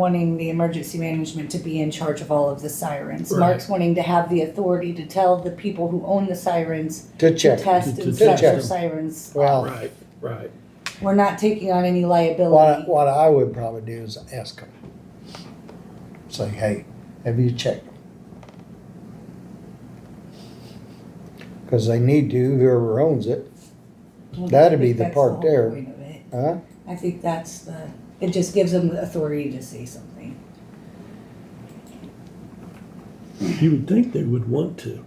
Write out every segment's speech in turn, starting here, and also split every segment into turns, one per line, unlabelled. wanting the emergency management to be in charge of all of the sirens.
Right.
Mark's wanting to have the authority to tell the people who own the sirens
to
to
check.
test
To-
and
to
set
check
their
them.
sirens.
Well,
Right, right.
We're not taking on any
what,
liability.
what I would probably do is ask them. Say, hey, have you checked? Cause they need to, whoever owns it,
Well, I
that'd be
think
the
that's
part
whole
there.
point of it.
huh?
I think that's the, it just gives them the authority to say something.
You would think they would want to.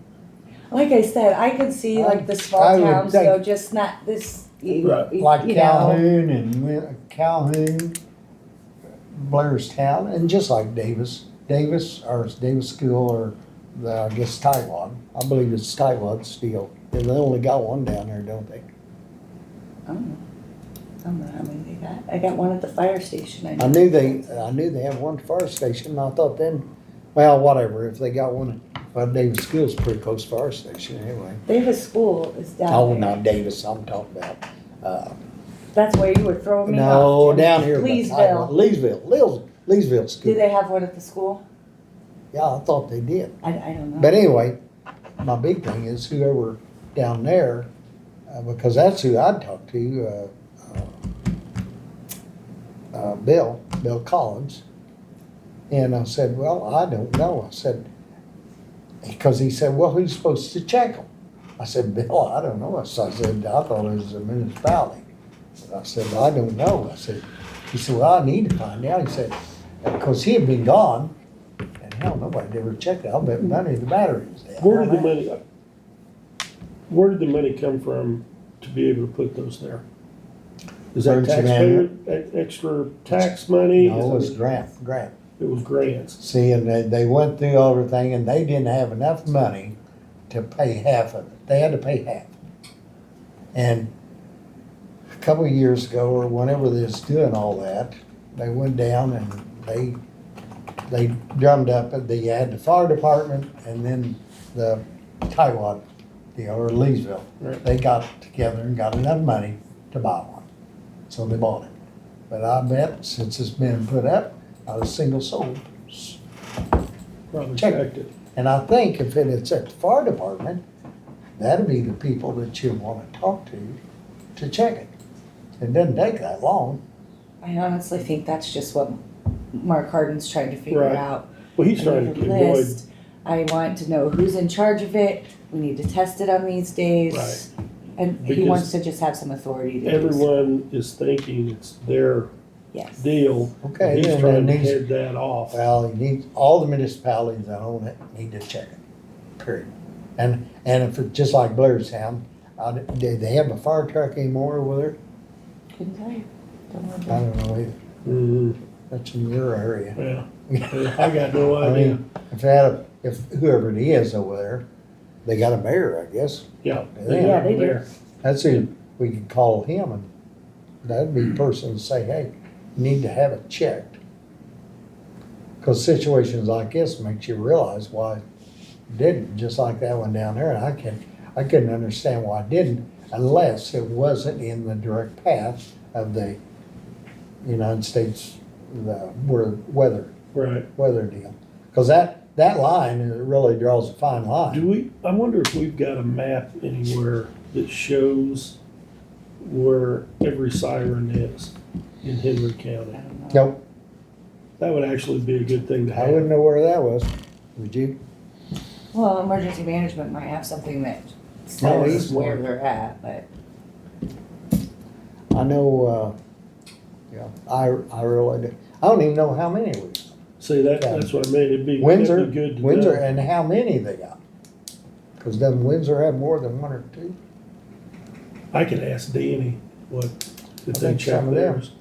Like I said, I could see like the
I
small
would
towns,
think-
though, just not this, you
Right.
you-
Like
you know.
Calhoun and Wi- Calhoun, Blairstown, and just like Davis, Davis or Davis School or the, I guess Taiwan. I believe it's Taiwan Steel. They only got one down there, don't they?
I don't know. I don't know how many they got. I got one at the fire station.
I knew they, uh, I knew they had one fire station, and I thought then, well, whatever, if they got one, well, Davis School's pretty close fire station anyway.
Davis School is
Oh,
down there.
not Davis, I'm talking about, uh,
That's where you were throwing me
no,
off. Jim.
down here. but I-
Leesville.
Leesville, Lees, Leesville
Do
School.
they have one at the school?
Yeah, I thought they did.
I, I don't know.
But anyway, my big thing is whoever down there, uh, because that's who I'd talk to, uh, uh, uh, Bill, Bill Collins. And I said, well, I don't know. I said, because he said, well, who's supposed to check them? I said, Bill, I don't know. I said, I thought it was the municipality. I said, I don't know. I said, he said, well, I need to find out. He said, because he had been gone, and hell, nobody ever checked it. I'll bet money the battery was dead.
Where did the money, where did the money come from to be able to put those there? Is that
Emergency
taxpayer, e- extra tax money? Is
No, it was
that-
grant, grant.
It was grants.
See, and they, they went through everything, and they didn't have enough money to pay half of it. They had to pay half. And a couple of years ago, or whenever they was doing all that, they went down and they, they drummed up, that they had the fire department and then the Taiwan, deal or Leesville.
Right.
They got together and got enough money to buy one, so they bought it. But I bet since it's been put up, not a single soul
Probably
Check.
checked it.
and I think if it's at the fire department, that'd be the people that you wanna talk to, to check it. It doesn't take that long.
I honestly think that's just what Mark Harden's trying to figure
Right.
out.
Well, he's
I
trying
need
to
a
avoid,
list. I want to know who's in charge of it. We need to test it on these days.
Right.
And he
Because-
wants to just have some authority to do so.
everyone is thinking it's their
Yes.
deal. and
Okay,
He's
then it
trying to
needs,
head that off.
well, you need, all the municipalities that own it need to check it, period. And, and if it's just like Blairstown, I, do they have a fire truck anymore over there?
Couldn't tell you. Don't know
I
about it.
don't know either.
Mhm.
That's in your area.
Yeah, I got no
I
idea.
mean, if they had, a- if whoever it is over there, they got a mayor, I guess.
Yeah.
Yeah, they do.
there.
That's who we could call him and that'd be the person to say, hey, you need to have it checked. Cause situations like this makes you realize why it didn't, just like that one down there. And I can, I couldn't understand why it didn't unless it wasn't in the direct path of the United States, the where- weather,
Right.
weather deal. Cause that, that line it really draws a fine
Do
line.
we, I wonder if we've got a map anywhere that shows where every siren is in Henry
I
County?
don't know.
Nope,
That would actually be a good thing to
I
have.
wouldn't know where that was, would you?
Well, emergency management might have something that
No,
says
he's-
where they're at, but
I know, uh, yeah, I, I really, do. I don't even know how many we,
See, that, that's what I mean, it'd be,
Windsor,
that'd be good to know.
Windsor, and how many they got. Cause doesn't Windsor have more than one or two?
I could ask Danny what, if they
think
check
some of them.
theirs.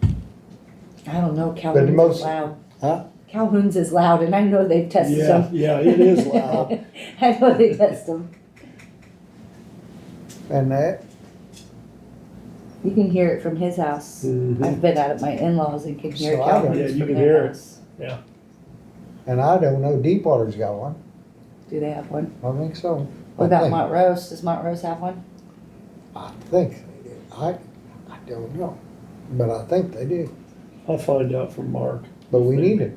I don't know. Calhoun's is
most-
loud.
Huh?
Calhoun's is loud and I know they've tested
Yeah,
them.
yeah, it is loud.
I know they test them.
And that,
You can hear it from his house.
Mhm.
I've been out at my in-laws and can hear
So I don't-
Yeah,
Calhoun's
you
from
can hear
their
it.
house.
and I don't know, Deepwater's got one,
Do they have one?
I don't think so.
What about
I think-
Montrose? Does Montrose have one?
I think they do, I, I don't know, but I think they do,
I'll find out from Mark.
but we need it.